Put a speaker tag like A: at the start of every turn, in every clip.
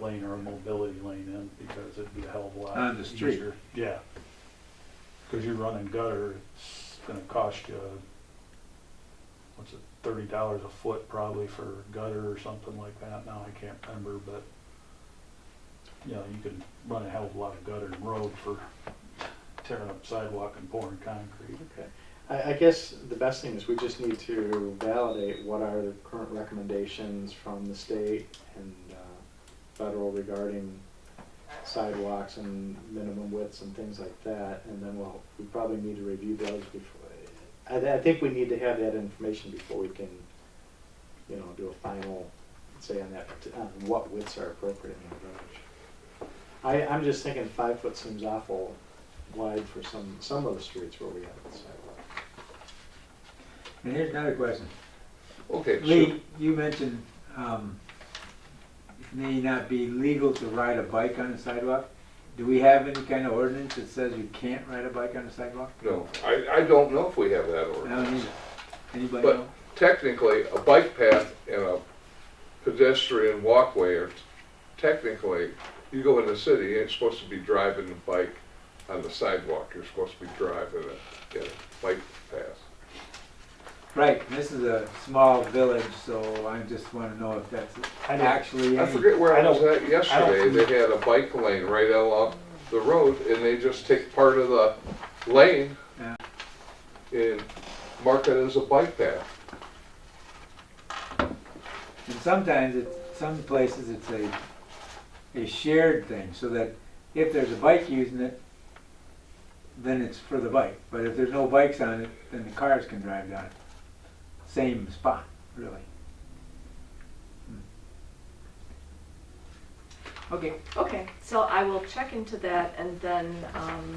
A: lane or a mobility lane in because it'd be a hell of a lot.
B: On the street.
A: easier. Yeah. Cause you're running gutter, it's gonna cost you, what's it, thirty dollars a foot probably for gutter or something like that. Now I can't remember, but you know, you can run a hell of a lot of gutter and road for tearing up sidewalk and pouring concrete.
C: Okay. I, I guess the best thing is we just need to validate what are the current recommendations from the state and uh, federal regarding sidewalks and minimum widths and things like that, and then we'll, we probably need to review those before. I, I think we need to have that information before we can, you know, do a final, say on that, on what widths are appropriate in the village. I, I'm just thinking five foot seems awful wide for some, some of the streets where we have the sidewalk.
B: And here's another question.
D: Okay, so,
B: Lee, you mentioned, um, it may not be legal to ride a bike on a sidewalk. Do we have any kind of ordinance that says you can't ride a bike on a sidewalk?
D: no, I, I don't know if we have that
B: I don't
D: ordinance.
B: either. Anybody
D: But-
B: know?
D: Technically, a bike path and a pedestrian walkway are technically, you go in the city, you ain't supposed to be driving a bike on the sidewalk. You're supposed to be driving a, in a bike path.
B: Right, this is a small village, so I just wanna know if that's
A: I don't-
B: actually
D: I
B: any-
D: forget where I
A: I
D: was
A: don't-
D: at yesterday, they had a bike lane right along the road and they just take part of the lane
B: Yeah.
D: and mark it as a bike path.
B: And sometimes it's, some places it's a, a shared thing, so that if there's a bike using it, then it's for the bike. But if there's no bikes on it, then the cars can drive down it. Same spot, really. Hmm. Okay,
E: Okay, so I will check into that and then um,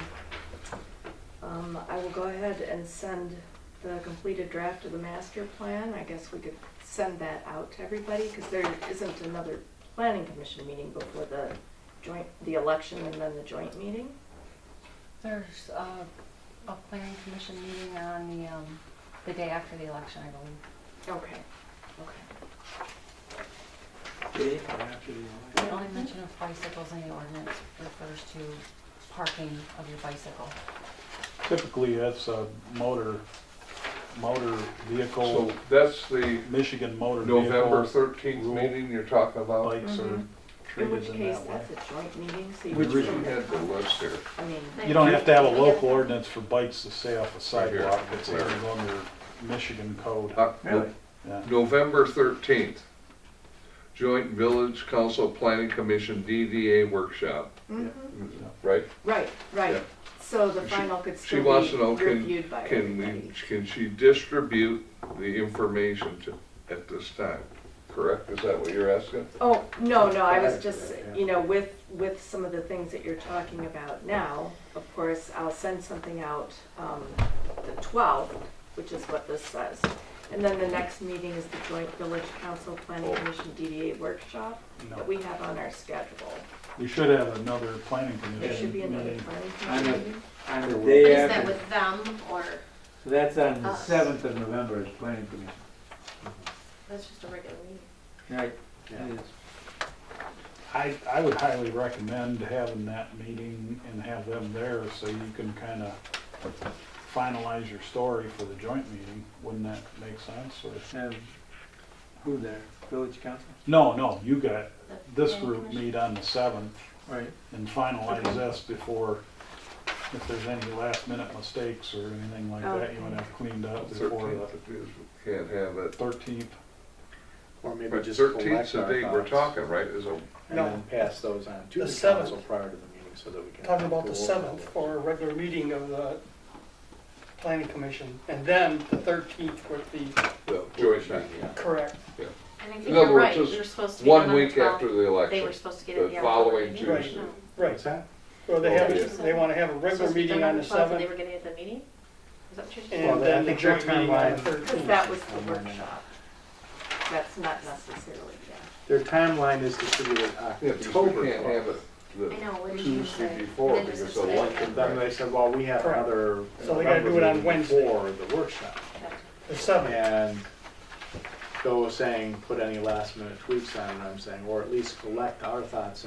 E: um, I will go ahead and send the completed draft of the master plan. I guess we could send that out to everybody because there isn't another planning commission meeting before the joint, the election and then the joint meeting.
F: There's uh, a planning commission meeting on the, um, the day after the election, I believe.
E: Okay, okay.
B: Dave, after you.
F: The only
G: Mm-hmm.
F: mention of bicycles in the ordinance refers to parking of your bicycle.
A: Typically, that's a motor, motor
D: So
A: vehicle,
D: that's the
A: Michigan motor
D: November
A: vehicle,
D: thirteenth
A: rule.
D: meeting you're talking about?
A: bikes are
E: Mhm. In
A: treated
E: which
A: in
E: case,
A: that way.
E: that's a joint meeting, so you.
D: We
A: Which
E: just
D: originally
E: don't
D: had
E: have
D: the list here.
E: to- I mean,
A: You don't have to have a
F: Yeah.
A: local ordinance for bikes to stay off a
D: here.
A: sidewalk, it's
D: There.
A: even under Michigan code.
D: Uh,
B: Really?
A: Yeah.
D: November thirteenth, joint village council planning commission DDA workshop, mm-hmm.
E: mhm.
D: right?
E: right, right.
D: Yeah.
E: So the
D: She-
E: final could
D: She wants to
E: still
D: know,
E: be
D: can,
E: reviewed by
D: can
E: everybody.
D: we, can she distribute the information to, at this time? Correct? Is that what you're asking?
E: Oh, no, no, I was
A: Prior to
E: just,
A: that, yeah.
E: you know, with, with some of the things that you're talking about now, of course, I'll send something out, um, the twelfth, which is what this says. And then the next meeting is the joint village council planning
D: Oh.
E: commission DDA workshop that
A: No.
E: we have on our schedule.
A: We should have another planning
E: There
A: commission
E: should be another
A: meeting.
E: planning
B: I
E: commission
B: know.
E: meeting.
B: On the day
G: Is that
B: after,
G: with them or
B: so that's on the
G: us?
B: seventh of November, is planning commission.
G: that's just a regular meeting?
B: Right,
A: Yeah.
B: it is.
A: I, I would highly recommend having that meeting and have them there so you can kind of finalize your story for the joint meeting. Wouldn't that make sense? Or-
B: Um, who there, village council?
A: No, no, you got,
G: The
A: this
G: planning
A: group
G: commission?
A: meet on the seventh
B: Right.
A: and finalize this before, if there's any last minute mistakes or anything like that, you want to have cleaned up before
D: Thirteenth,
A: the
D: can't have it.
A: thirteenth.
C: Or maybe
D: But
C: just collect
D: thirteenth's the
C: our
D: date we're
C: thoughts
D: talking, right? Is a,
C: And
H: No.
C: then pass those on to
H: The
C: the
H: seventh.
C: council prior to the meeting so that we can.
H: Talking about
C: go
H: the
C: over
H: seventh
C: it.
H: for a regular meeting of the planning commission, and then the thirteenth with the
D: the joint meeting.
C: Yeah.
H: correct.
G: And I think
D: In other
G: you're
D: words,
G: right,
D: just
G: we were supposed to get it
D: One
G: on the
D: week after
G: twelfth.
D: the
G: They were
D: election,
G: supposed to get it
D: the
G: the hour.
D: following
H: Right.
D: Tuesday.
G: No.
H: Right,
C: What's that?
H: so they
D: Oh,
H: have,
D: yeah.
H: they wanna have a regular
G: Supposed to be
H: meeting
G: done
H: on the
G: 12th, They
H: seventh,
G: were getting it at the meeting? Is that what you're saying?
C: Well,
H: and
C: I
H: then the
C: think your
H: joint meeting on the
C: timeline-
E: Because
H: thirteenth.
E: that was the
C: Hold on a minute.
E: workshop. That's not necessarily, yeah.
C: Their timeline is distributed
D: Yeah,
C: October
D: because we can't have it
C: twelfth.
G: I know,
D: the
G: what did you
D: Tuesday
G: say?
D: before
G: Then there's
D: because
G: the
D: of
G: second.
D: election.
C: Then they said, well, we have
H: Correct.
C: another.
H: So they gotta do it on
C: November meeting
H: Wednesday.
C: Before the workshop.
H: The seventh,
C: And Joe was saying, put any last minute tweaks on it, I'm saying, or at least collect our thoughts